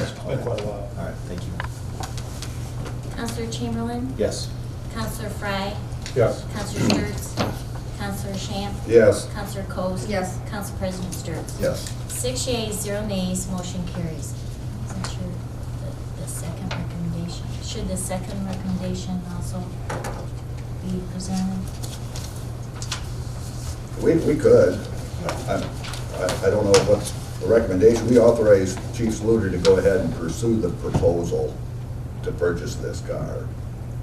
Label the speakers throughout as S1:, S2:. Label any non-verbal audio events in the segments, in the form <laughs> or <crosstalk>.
S1: Been quite a while.
S2: All right, thank you.
S3: Counselor Chamberlain?
S2: Yes.
S3: Counselor Frye?
S1: Yes.
S3: Counselor Sturts? Counselor Shamp?
S4: Yes.
S3: Counselor Coats?
S5: Yes.
S3: Counsel President Sturts?
S4: Yes.
S3: Six yeas, zero nays, motion carries. Since you're the- the second recommendation, should the second recommendation also be presented?
S4: We, we could. I, I, I don't know what's the recommendation. We authorized Chief Sluter to go ahead and pursue the proposal to purchase this car.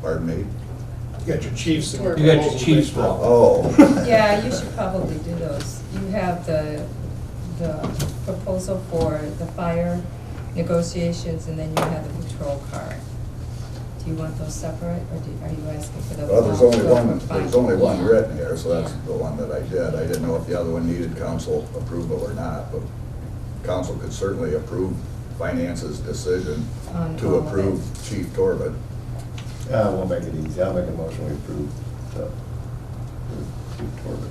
S4: Pardon me?
S1: You got your chiefs. and
S5: You
S6: got your chiefs wrong.
S4: Oh.
S5: Yeah, you
S4: <laughs>
S5: should probably do those. You have the, the proposal for the fire negotiations, and then you have the patrol car. Do you want those separate, or do, are you asking for the?
S4: Well, there's
S5: all
S4: only
S5: twelve
S4: one,
S5: or five?
S4: there's only one
S3: Yeah.
S4: written here, so that's
S3: Yeah.
S4: the one that I did. I didn't know if the other one needed council approval or not, but council could certainly approve finances decision
S5: On all
S4: to
S5: of it.
S4: approve Chief Torvik.
S2: Uh, we'll make it easy. I'll make a motion we approve the, approve Corbin.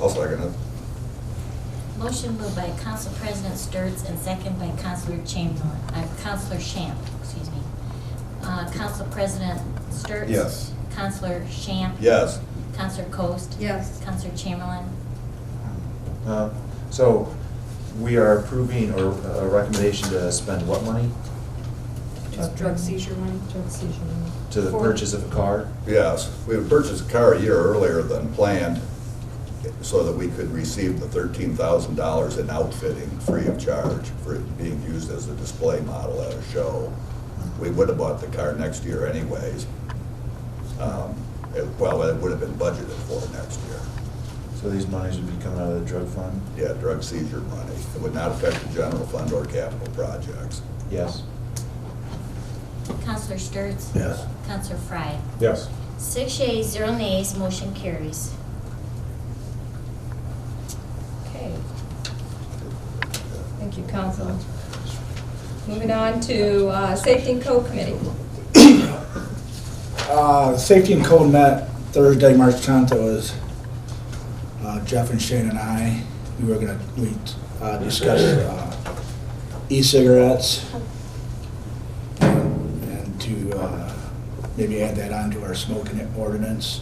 S4: I'll second it.
S3: Motion moved by Council President Sturts and second by Councilor Chamberlain, uh, Councilor Shamp, excuse me. Uh, Council President Sturts?
S2: Yes.
S3: Councilor Shamp?
S4: Yes.
S3: Counselor Coast?
S5: Yes.
S3: Counselor Chamberlain?
S2: Uh, So we are approving or uh, a recommendation to spend what money?
S5: Drug-
S7: Drug seizure money?
S5: Drug seizure.
S2: To the
S7: For-
S2: purchase of a car?
S4: Yes, we had purchased the car a year earlier than planned so that we could receive the thirteen thousand dollars in outfitting free of charge for it being used as a display model at a show. We would have bought the car next year anyways. Um, it- Well, it would have been budgeted for next year.
S2: So these monies would be coming out of the drug fund?
S4: Yeah, drug seizure money. It would not affect the general fund or capital projects.
S2: Yes.
S3: Counselor Sturts?
S4: Yes.
S3: Counselor Frye?
S1: Yes.
S3: Six yeas, zero nays, motion carries.
S5: Okay, thank you, council. Moving on to, uh, Safety and Code Committee.
S8: Uh, Safety and Code met Thursday, March 10th. It was uh, Jeff and Shane and I. We were going to discuss uh, e-cigarettes and to uh, maybe add that on to our smoking ordinance.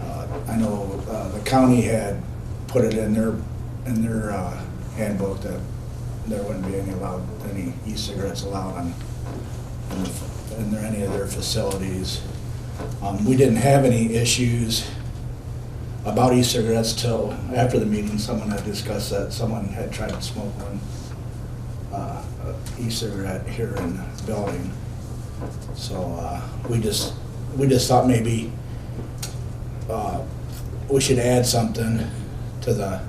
S8: Uh, I know uh, the county had put it in their, in their uh, handbook that there wouldn't be any allowed, any e-cigarettes allowed on, in the- in their- any of their facilities. Um, We didn't have any issues about e-cigarettes till after the meeting. Someone had discussed that, someone had tried to smoke one uh, e-cigarette here in the building. So uh, we just, we just thought maybe uh, we should add something to the,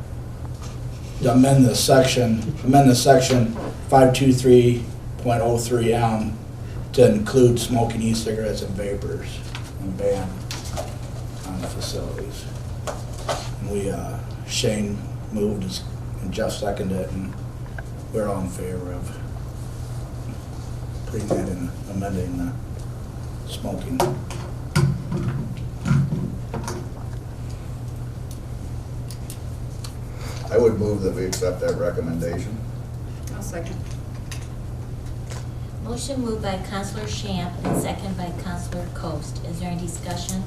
S8: to amend the section, amend the section 523.03M to include smoking e-cigarettes and vapors and ban on the facilities. And we, uh, Shane moved and Jeff seconded it, and we're all in favor of putting that in, amending the smoking.
S4: I would move that we accept that recommendation.
S7: I'll second.
S3: Motion moved by Counselor Shamp and second by Counselor Coast. Is there any discussion?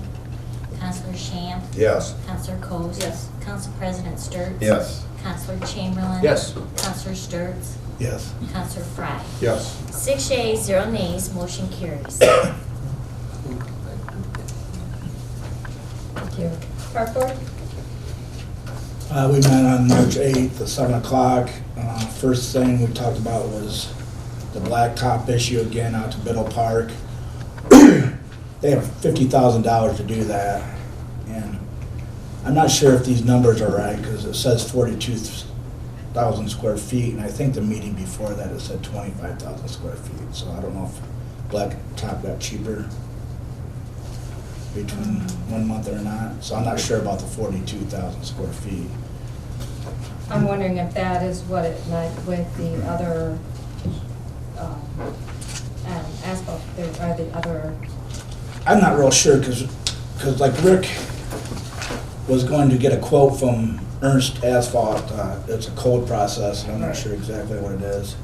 S3: Counselor Shamp?
S4: Yes.
S3: Counselor Coast?
S7: Yes.
S3: Counsel President Sturts?
S2: Yes.
S3: Counselor Chamberlain?
S2: Yes.
S3: Counselor Sturts?
S8: Yes.
S3: Counselor Frye?
S1: Yes.
S3: Six yeas, zero nays, motion carries.
S5: Thank you. Park Board?
S8: Uh, we met on March 8th at 7 o'clock. Uh, First thing we talked about was the blacktop issue again out to Biddle Park. <clears throat> They have $50,000 to do that. And I'm not sure if these numbers are right because it says 42,000 square feet. And I think the meeting before that it said 25,000 square feet. So I don't know if blacktop got cheaper between one month or not. So I'm not sure about the 42,000 square feet.
S5: I'm wondering if that is what it meant with the other um, um, asphalt, there are the other,
S8: I'm not real sure, because, like Rick was going to get a quote from Ernst Asphalt, uh, it's a cold process, and I'm not sure exactly what it is.